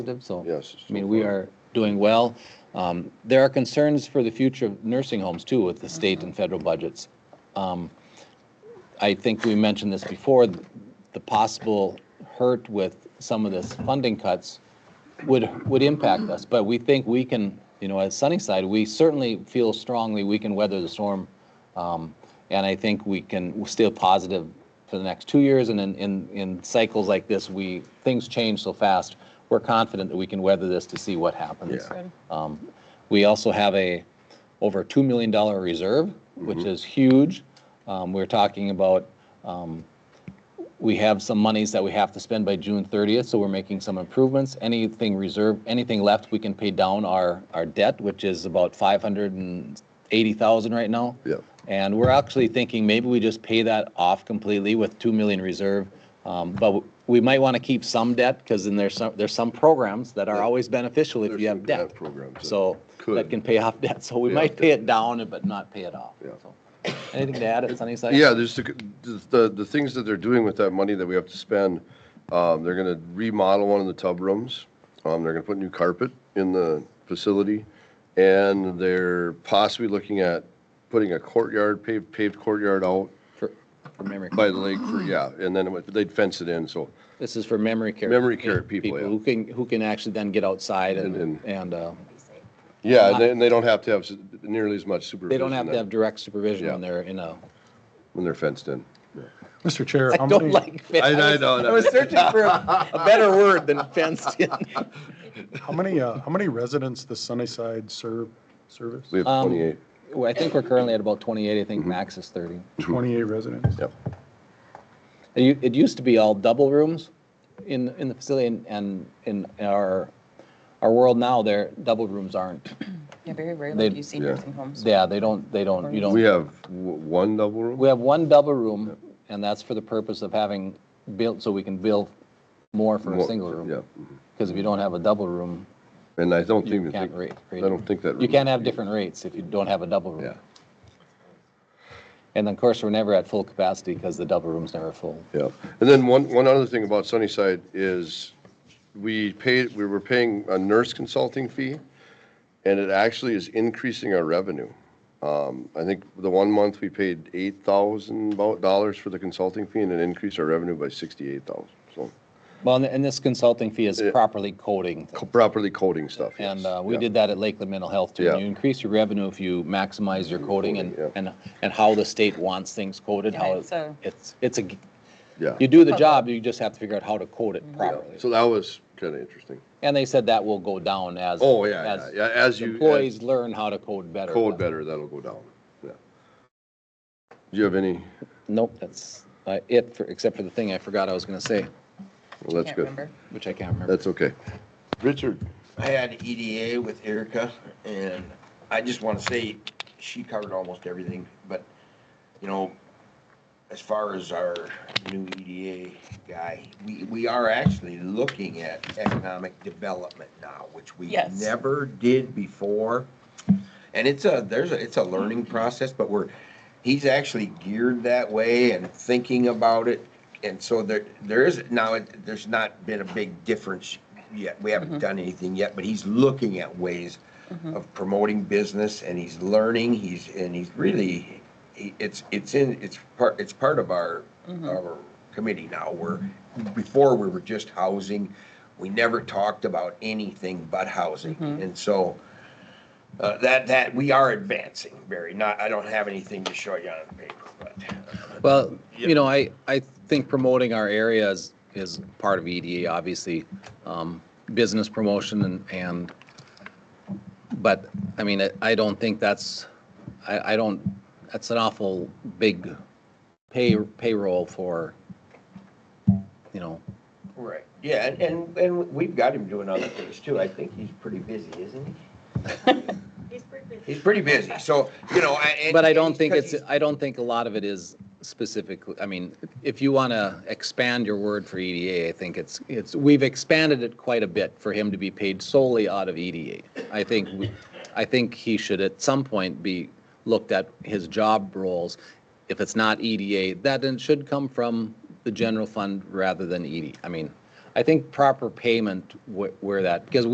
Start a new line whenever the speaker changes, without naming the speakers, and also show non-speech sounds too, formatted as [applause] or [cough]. positive, so.
Yes.
I mean, we are doing well. Um, There are concerns for the future of nursing homes too with the state and federal budgets. Um, I think we mentioned this before, th- the possible hurt with some of this funding cuts would, would impact us, but we think we can, you know, as Sunnyside, we certainly feel strongly we can weather the storm. Um, And I think we can, we're still positive for the next two years, and in, in, in cycles like this, we, things change so fast. We're confident that we can weather this to see what happens.
Yeah.
Um, We also have a over $2 million reserve, which is huge. Um, We're talking about, um, we have some monies that we have to spend by June 30th, so we're making some improvements. Anything reserved, anything left, we can pay down our, our debt, which is about 580,000 right now.
Yeah.
And we're actually thinking maybe we just pay that off completely with 2 million reserve. Um, But we might want to keep some debt because then there's some, there's some programs that are always beneficial if
There's
you
some
have
grant
debt.
programs that
So that
could.
can pay off [laughs] debt. So we
Pay
might
off
pay it down but not pay it off.
Yeah.
So, Anything to add at Sunnyside?
Yeah, there's the, the, the things that they're doing with that money that we have to spend. Um, they're gonna remodel one of the tub rooms. Um, they're gonna put new carpet in the facility. And they're possibly looking at putting a courtyard, paved, paved courtyard out
For for memory,
by the lake for, yeah, and then it would- they'd fence it in, so.
this is for memory care.
Memory care people, yeah.
Who can, who can actually then get outside and,
And-
and uh,
Yeah, and they, and they don't have to have s- nearly as much supervision.
they don't have to have
then
direct supervision when
Yeah.
they're in a,
When they're fenced in.
Mr. Chair,
I
how
don't
many,
like. fe-
I- I
was-
know,
I was searching for a a better word than
[laughs]
fenced in.
how many, uh, how many residents the Sunnyside serve, service?
We have
Um,
28,
Well, I think we're currently at about 28, I
Mm-hmm.
think max is 30.
Twenty-eight residents.
yep.
It u- it used to be all double rooms in, in the facility and- and in our, our world now, their double rooms aren't.
Yeah, very rarely
They-
do you see
yeah.
nursing homes.
Yeah, they don't, they don't, you don't.
We have w- one double room?
We have one double room and that's for the purpose of having built, so we can build more for a
More-
single room.
Yeah. mm-hmm.
Because if you don't have a double room,
And I don't
you
even
can't
think,
rate.
I don't think that.
You can't have different rates if you don't have a double room.
Yeah,
And then, of course, we're never at full capacity because the double room's never full.
yeah. And then one, one other thing about Sunnyside is we paid, we were paying a nurse consulting fee and it actually is increasing our revenue. Um, I think the one month we paid eight thousand dollars for the consulting fee and it increased our revenue by sixty-eight thousand. So
Well, and- and this consulting fee is
Yeah.
properly coding.
co- properly coding stuff. yes.
And uh, we
Yeah.
did that at Lakeland Mental Health too.
Yeah.
You increase your revenue if you maximize your coding and,
Coding,
and, and how the state wants things coded,
Yeah,
how
it's a-
it's, it's a,
Yeah.
you do the job, you just have to figure out how to code it
Yeah.
properly.
So that was kind of interesting.
And they said that will go down as.
Oh, yeah, yeah,
as
yeah. As you.
Employees learn how to code better.
Code better, that'll go down, yeah. Do you have any,
Nope, that's uh, it, for- except for the thing I forgot I was going to say,
well, that's
Can't
good.
remember.
which I can't remember.
That's okay. Richard?
I had EDA with Erica, and I just want to say, she covered almost everything, but, you know, as far as our new EDA guy, we, we are actually looking at economic development now, which we
Yes.
never did before. And it's a, there's a, it's a learning process, but we're, he's actually geared that way and thinking about it. And so there, there is, now, it- there's not been a big difference yet. We haven't done anything yet, but he's looking at ways of promoting business and he's learning, he's, and he's really, he- it's, it's in, it's part, it's part of our, our committee now. We're, before we were just housing, we never talked about anything but housing. And so, uh, that, that, we are advancing, Barry. Not, I don't have anything to show you on paper, but. uh,
Well, you know, I, I think promoting our areas is part of EDA, obviously, um, business promotion and, and, but, I mean, I- I don't think that's, I, I don't, that's an awful big pay, payroll for, you know,
Right. Yeah, and, and, and we've got him doing other things too. I think he's pretty busy, isn't he?
He's pretty busy.
He's pretty busy, so, you know, I. and-
But I don't think
because
it's, I don't think a lot of it is specifically, I mean, if you want to expand your word for EDA, I think it's, it's, we've expanded it quite a bit for him to be paid solely out of EDA. I think, we- I think he should at some point be looked at his job roles. If E it's not EDA, that then should come from the general fund rather than ED. E I mean, I think proper payment wh- where that, because